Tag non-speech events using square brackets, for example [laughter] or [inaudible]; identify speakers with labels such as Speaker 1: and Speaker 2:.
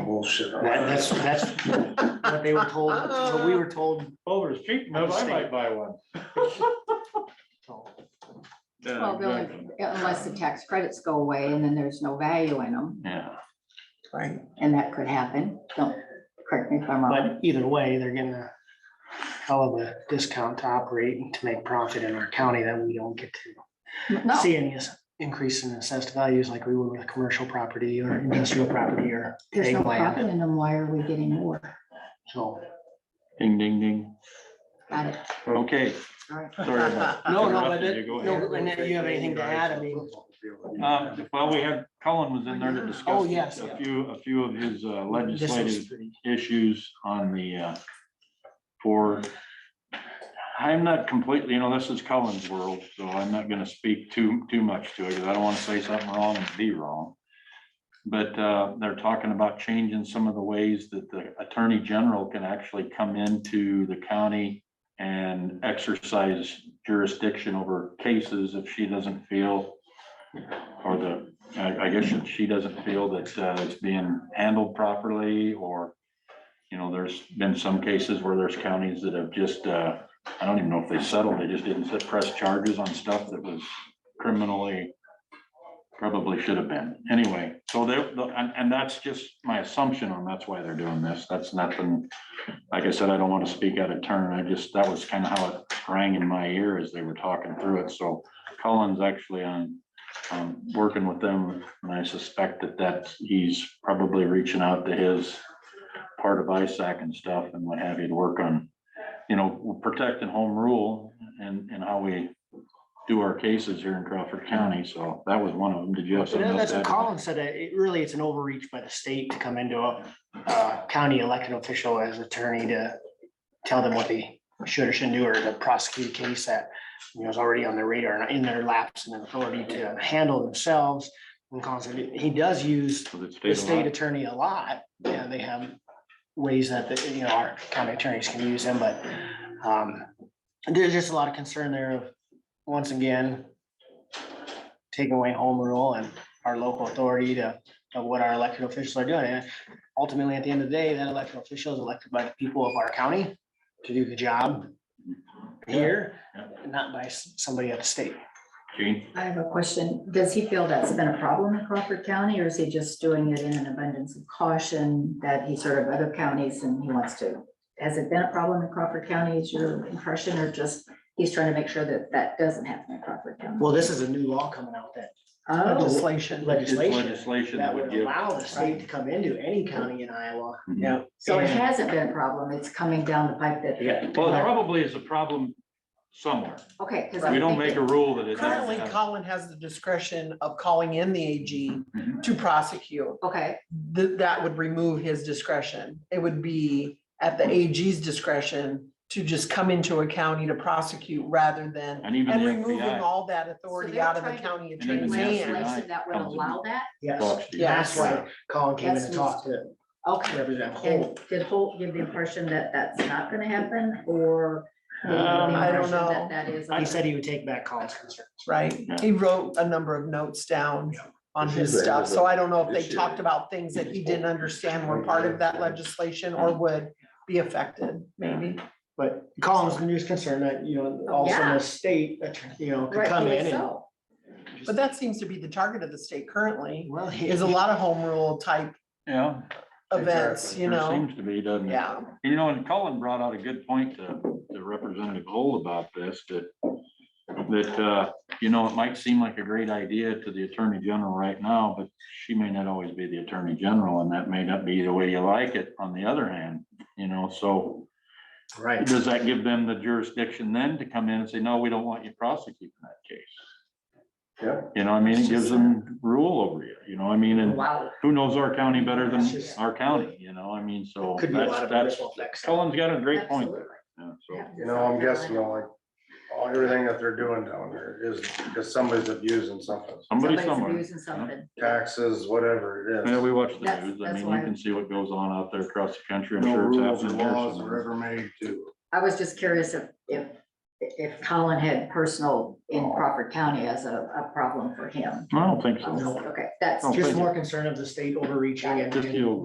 Speaker 1: bullshit.
Speaker 2: That- That's, that's what they were told, what we were told.
Speaker 3: Over the street, no, I might buy one.
Speaker 2: so.
Speaker 4: Well, the only- unless the tax credits go away and then there's no value in them,
Speaker 3: Yeah.
Speaker 1: Right.
Speaker 4: and that could happen. Don't correct me if I'm wrong.
Speaker 2: But either way, they're getting a hell of a discount to operate and to make profit in our county that we don't get to
Speaker 4: No,
Speaker 2: see any s- increase in assessed values like we would with commercial property or industrial property or
Speaker 4: there's no
Speaker 2: ag land.
Speaker 4: profit in them. Why are we getting more?
Speaker 2: So,
Speaker 3: Ding, ding, ding.
Speaker 4: Got it.
Speaker 3: Okay.
Speaker 4: All right.
Speaker 3: Sorry [laughs] about
Speaker 2: no, [laughs] no, but,
Speaker 3: Interrupted
Speaker 2: it-
Speaker 3: you, go ahead.
Speaker 2: no, and if you have anything to add, I mean,
Speaker 1: Um,
Speaker 3: Uh, well, we had, Colin was in there to discuss.
Speaker 2: Oh, yes, yeah.
Speaker 3: A few, a few of his uh,
Speaker 2: this
Speaker 3: legislative
Speaker 2: is pretty.
Speaker 3: issues on the, uh, for, I'm not completely, you know, this is Cullen's world, so I'm not gonna speak too, too much to it, because I don't wanna say something wrong and be wrong. But, uh, they're talking about changing some of the ways that the Attorney General can actually come into the county and exercise jurisdiction over cases if she doesn't feel, or the, I, I guess if she doesn't feel that, uh, it's being handled properly, or you know, there's been some cases where there's counties that have just, uh, I don't even know if they settled, they just didn't set- press charges on stuff that was criminally probably should have been. Anyway, so they, and, and that's just my assumption on that's why they're doing this. That's nothing. Like I said, I don't want to speak out of turn. I just, that was kind of how it rang in my ear as they were talking through it. So Colin's actually on, um, working with them and I suspect that that's, he's probably reaching out to his part of ISAC and stuff and what have you to work on, you know, protecting home rule and, and how we do our cases here in Crawford County. So that was one of them. Did you have
Speaker 2: But
Speaker 3: something
Speaker 2: then
Speaker 3: else?
Speaker 2: That's
Speaker 3: to
Speaker 2: what
Speaker 3: add?
Speaker 2: Colin said, that it really, it's an overreach by the state to come into a uh, county elected official as attorney to tell them what they should or shouldn't do, or to prosecute a case that, you know, is already on their radar and in their laps and their authority to handle themselves. And constantly, he does use
Speaker 3: Was it
Speaker 2: the
Speaker 3: state
Speaker 2: state
Speaker 3: law?
Speaker 2: attorney a lot, and they have ways that, the you know, our county attorneys can use them, but um, there's just a lot of concern there of, once again, taking away home rule and our local authority to, of what our elected officials are doing. And ultimately, at the end of the day, that elected official is elected by the people of our county to do the job here,
Speaker 3: Yeah,
Speaker 2: not by s- somebody at the state.
Speaker 3: Gene?
Speaker 4: I have a question. Does he feel that's been a problem in Crawford County or is he just doing it in an abundance of caution that he's heard of other counties and he wants to? Has it been a problem in Crawford County? Is your impression or just he's trying to make sure that that doesn't happen in Crawford County?
Speaker 2: Well, this is a new law coming out that
Speaker 4: Oh,
Speaker 2: legislation,
Speaker 3: It's
Speaker 2: legislation
Speaker 3: Legislation
Speaker 2: that would
Speaker 3: give.
Speaker 2: allow the state to come into any county in Iowa.
Speaker 3: Mhm.
Speaker 4: so it hasn't been a problem. It's coming down the pipe that.
Speaker 3: Yeah, well, there probably is a problem somewhere.
Speaker 4: Okay. 'cause I'm
Speaker 3: We don't make
Speaker 4: thinking-
Speaker 3: a rule that it
Speaker 5: Currently,
Speaker 3: doesn't.
Speaker 5: Colin has the discretion of calling in the AG
Speaker 3: Mhm.
Speaker 5: to prosecute.
Speaker 4: Okay,
Speaker 5: Th- that would remove his discretion. It would be at the AG's discretion to just come into a county to prosecute rather than,
Speaker 3: And even
Speaker 5: and
Speaker 3: the
Speaker 5: removing
Speaker 3: FBI.
Speaker 5: all that authority out of the
Speaker 4: they're trying
Speaker 5: county
Speaker 3: And even
Speaker 5: attorney's
Speaker 3: the
Speaker 5: hands.
Speaker 3: FBI
Speaker 4: legislation that would
Speaker 3: comes in.
Speaker 4: allow that?
Speaker 2: Yes,
Speaker 3: Talks to you.
Speaker 5: Yeah.
Speaker 2: that's why Colin came in and talked to
Speaker 4: Okay.
Speaker 2: Representative
Speaker 4: And
Speaker 2: Holt.
Speaker 4: did Holt give the impression that that's not gonna happen, or? did he give the
Speaker 3: Um,
Speaker 5: I don't
Speaker 4: impression that
Speaker 5: know.
Speaker 4: That is.
Speaker 2: He said he would take back Colin's concern.
Speaker 5: Right,
Speaker 3: Yeah.
Speaker 5: he wrote a number of notes down on
Speaker 1: This
Speaker 5: his
Speaker 1: is a-
Speaker 5: stuff, so I don't know if
Speaker 1: this
Speaker 5: they
Speaker 1: is-
Speaker 5: talked about things that he didn't understand were part of that legislation or
Speaker 3: Mm-hmm.
Speaker 5: would be affected, maybe.
Speaker 2: But Colin's news concern that, you know, also
Speaker 4: Yeah.
Speaker 2: the state, attorney, you know, could come
Speaker 4: Rightfully
Speaker 2: in and.
Speaker 4: so.
Speaker 5: But that seems to be the target of the state currently,
Speaker 2: Well, he-
Speaker 5: is a lot of home rule type
Speaker 3: Yeah,
Speaker 5: events, you
Speaker 3: there
Speaker 5: know?
Speaker 3: seems to be, doesn't it?
Speaker 5: Yeah,
Speaker 3: You know, and Colin brought out a good point to, to Representative Old about this, that, that, uh, you know, it might seem like a great idea to the Attorney General right now, but she may not always be the Attorney General, and that may not be the way you like it, on the other hand, you know, so
Speaker 2: Right.
Speaker 3: does that give them the jurisdiction then to come in and say, no, we don't want you prosecuting that case?
Speaker 1: Yeah.
Speaker 3: You know, what I mean, it gives them rule over you, you know, what I mean, and
Speaker 4: Wow,
Speaker 3: who knows our county better than
Speaker 2: That's just-
Speaker 3: our county, you know, I mean, so
Speaker 2: Could be a lot
Speaker 3: that's,
Speaker 2: of
Speaker 3: that's,
Speaker 2: ripple effects.
Speaker 3: Colin's got a great point
Speaker 4: absolutely.
Speaker 3: there. Yeah, so.
Speaker 4: Yeah.
Speaker 1: You know, I'm guessing like, all, everything that they're doing down there is, because somebody's abusing something,
Speaker 3: Somebody
Speaker 4: Somebody's
Speaker 3: somewhere.
Speaker 4: abusing something.
Speaker 1: taxes, whatever it
Speaker 3: Yeah,
Speaker 1: is.
Speaker 3: we watch the
Speaker 4: That's-
Speaker 3: news. I
Speaker 4: that's
Speaker 3: mean,
Speaker 4: why-
Speaker 3: you can see what goes on out there across the country. I'm
Speaker 1: No
Speaker 3: sure it's
Speaker 1: rules or
Speaker 3: happening here
Speaker 1: laws are
Speaker 3: somewhere.
Speaker 1: ever made to.
Speaker 4: I was just curious if, if, if Colin had personal in Crawford County as a, a problem for him.
Speaker 3: Oh. I don't think
Speaker 4: I was
Speaker 3: so.
Speaker 4: like, Okay, that's.
Speaker 3: No.
Speaker 2: Just more concern of the state overreaching and.
Speaker 3: Just you.